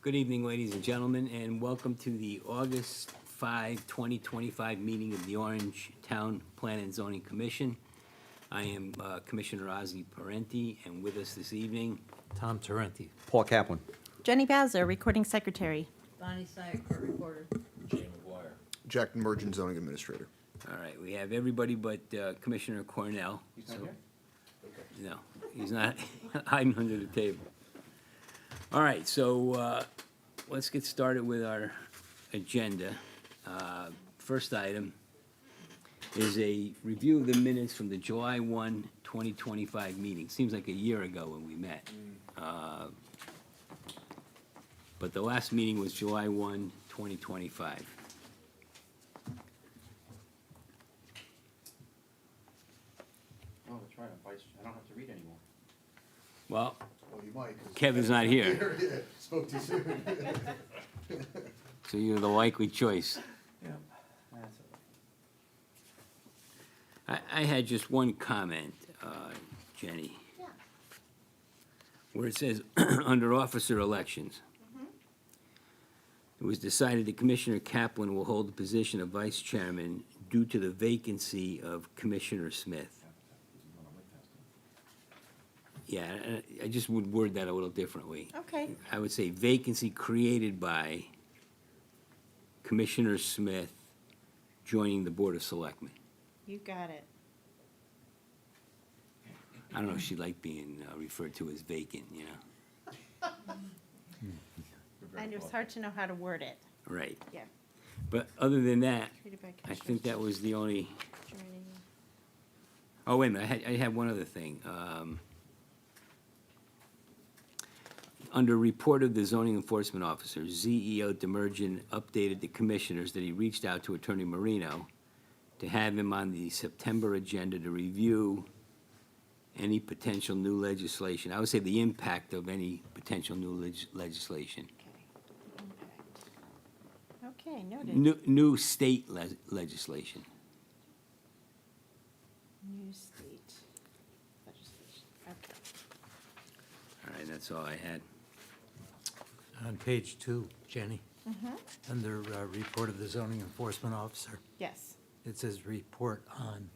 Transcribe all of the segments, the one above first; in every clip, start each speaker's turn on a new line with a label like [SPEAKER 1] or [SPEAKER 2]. [SPEAKER 1] Good evening, ladies and gentlemen, and welcome to the August 5, 2025 meeting of the Orange Town Plan and Zoning Commission. I am uh, Commissioner Ozzie Parenti, and with us this evening,
[SPEAKER 2] Tom Tarenti.
[SPEAKER 3] Paul Kaplan.
[SPEAKER 4] Jenny Bowser, Recording Secretary.
[SPEAKER 5] Bonnie Sykes, recorder.
[SPEAKER 6] Jack Mergen, zoning administrator.
[SPEAKER 1] all right, we have everybody but uh, Commissioner Cornell. He's not here? No, he's not hiding under the table. All right, so uh, let's get started with our agenda. Uh, First item is a review of the minutes from the July 1, 2025 meeting. Seems like a year ago when we met. Uh, But the last meeting was July 1, 2025.
[SPEAKER 7] Oh, that's right, I'm vice, I don't have to read anymore.
[SPEAKER 1] Well,
[SPEAKER 8] Well, you might. 'cause-
[SPEAKER 1] Kevin's not here,
[SPEAKER 8] Yeah, Spoke too soon.
[SPEAKER 1] so you're the likely choice.
[SPEAKER 7] Yeah. That's all right.
[SPEAKER 1] I, I had just one comment, uh, Jenny.
[SPEAKER 5] Yeah.
[SPEAKER 1] Where it says, under officer elections. It was decided that Commissioner Kaplan will hold the position of vice chairman due to the vacancy of Commissioner Smith. Yeah, I- I, I just would word that a little differently.
[SPEAKER 4] Okay.
[SPEAKER 1] I would say vacancy created by Commissioner Smith joining the Board of Selectmen.
[SPEAKER 4] You got it.
[SPEAKER 1] I don't know if she liked being uh, referred to as vacant, you know?
[SPEAKER 7] You're very
[SPEAKER 4] And it's
[SPEAKER 7] welcome.
[SPEAKER 4] hard to know how to word it.
[SPEAKER 1] Right.
[SPEAKER 4] Yeah.
[SPEAKER 1] But other than that,
[SPEAKER 4] Treated by
[SPEAKER 1] I think that was the only,
[SPEAKER 4] commissioners joining-
[SPEAKER 1] oh, wait a minute, I had, I had one other thing. Um, Under report of the zoning enforcement officer, ZEO Demerjen updated the commissioners that he reached out to Attorney Marino to have him on the September agenda to review any potential new legislation. I would say the impact of any potential new leg- legislation.
[SPEAKER 4] Okay, noted.
[SPEAKER 1] New, new state le- legislation.
[SPEAKER 4] New state legislation. Okay.
[SPEAKER 1] All right, that's all I had.
[SPEAKER 2] On page two, Jenny,
[SPEAKER 4] Mm-hmm.
[SPEAKER 2] under uh, report of the zoning enforcement officer,
[SPEAKER 4] Yes.
[SPEAKER 2] it says report on.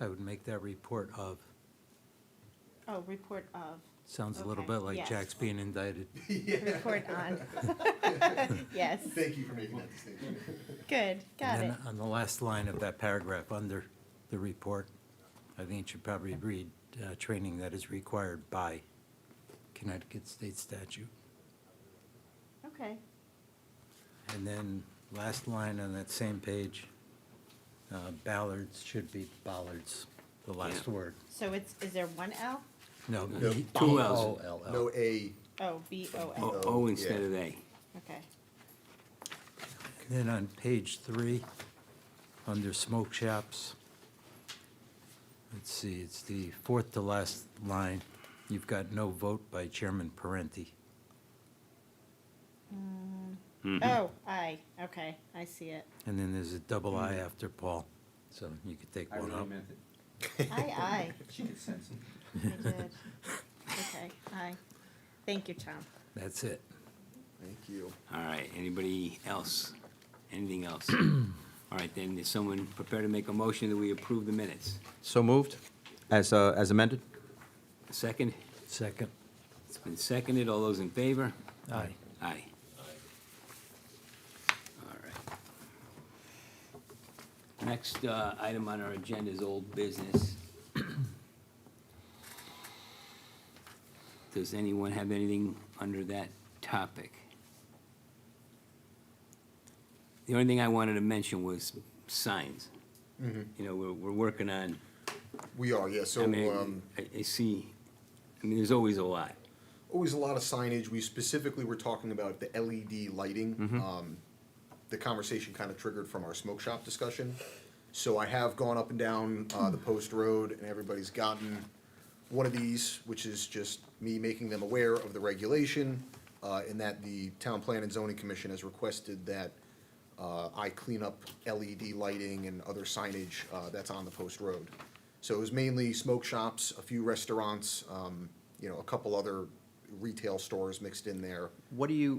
[SPEAKER 2] I would make that report of.
[SPEAKER 4] Oh, report of,
[SPEAKER 2] Sounds a little
[SPEAKER 4] Okay,
[SPEAKER 2] bit like
[SPEAKER 4] yes.
[SPEAKER 2] Jack's being indicted.
[SPEAKER 8] Yeah,
[SPEAKER 4] report on. Yes,
[SPEAKER 8] thank you for making that distinction.
[SPEAKER 4] good, got
[SPEAKER 2] And
[SPEAKER 4] it.
[SPEAKER 2] then on the last line of that paragraph, under the report, I think it should probably read, uh, training that is required by Connecticut state statute.
[SPEAKER 4] Okay,
[SPEAKER 2] And then last line on that same page, uh, Ballards should be Ballards, the last
[SPEAKER 1] Yeah.
[SPEAKER 2] word.
[SPEAKER 4] so it's, is there one L?
[SPEAKER 2] No,
[SPEAKER 8] No,
[SPEAKER 2] B-
[SPEAKER 1] two
[SPEAKER 2] B-
[SPEAKER 1] Ls.
[SPEAKER 2] O L L.
[SPEAKER 8] No A,
[SPEAKER 4] Oh, B O
[SPEAKER 1] O
[SPEAKER 4] L,
[SPEAKER 1] O
[SPEAKER 8] yeah.
[SPEAKER 1] instead of A.
[SPEAKER 4] okay.
[SPEAKER 2] And Then on page three, under smoke shops, let's see, it's the fourth to last line. You've got no vote by Chairman Parenti.
[SPEAKER 1] Mm-hmm.
[SPEAKER 4] Oh, I, okay, I see it.
[SPEAKER 2] And then there's a double I after Paul, so you could take
[SPEAKER 7] I
[SPEAKER 2] one
[SPEAKER 7] really
[SPEAKER 2] out.
[SPEAKER 7] meant it,
[SPEAKER 4] I,
[SPEAKER 7] she could sense it.
[SPEAKER 4] I, I did. Okay, I. Thank you, Tom.
[SPEAKER 2] That's it.
[SPEAKER 8] thank you.
[SPEAKER 1] All right, anybody else? Anything else? All right, then, is someone prepared to make a motion that we approve the minutes?
[SPEAKER 3] So moved, as, uh, as amended?
[SPEAKER 1] Second?
[SPEAKER 2] Second.
[SPEAKER 1] It's been seconded. All those in favor?
[SPEAKER 2] Aye.
[SPEAKER 1] Aye. All right. Next uh, item on our agenda is old business. Does anyone have anything under that topic? The only thing I wanted to mention was signs. You know, we're, we're working on,
[SPEAKER 8] We are, yeah, Mm-hmm. so,
[SPEAKER 1] I mean,
[SPEAKER 8] um,
[SPEAKER 1] I I see, I mean, there's always a lot.
[SPEAKER 8] always a lot of signage. We specifically were talking about the LED lighting.
[SPEAKER 1] Mm-hmm.
[SPEAKER 8] Um, the conversation kind of triggered from our smoke shop discussion. So I have gone up and down uh, the post road, and everybody's gotten one of these, which is just me making them aware of the regulation, uh, in that the Town Plan and Zoning Commission has requested that uh, I clean up LED lighting and other signage uh, that's on the post road. So it was mainly smoke shops, a few restaurants, um, you know, a couple other retail stores mixed in there.
[SPEAKER 3] What do you,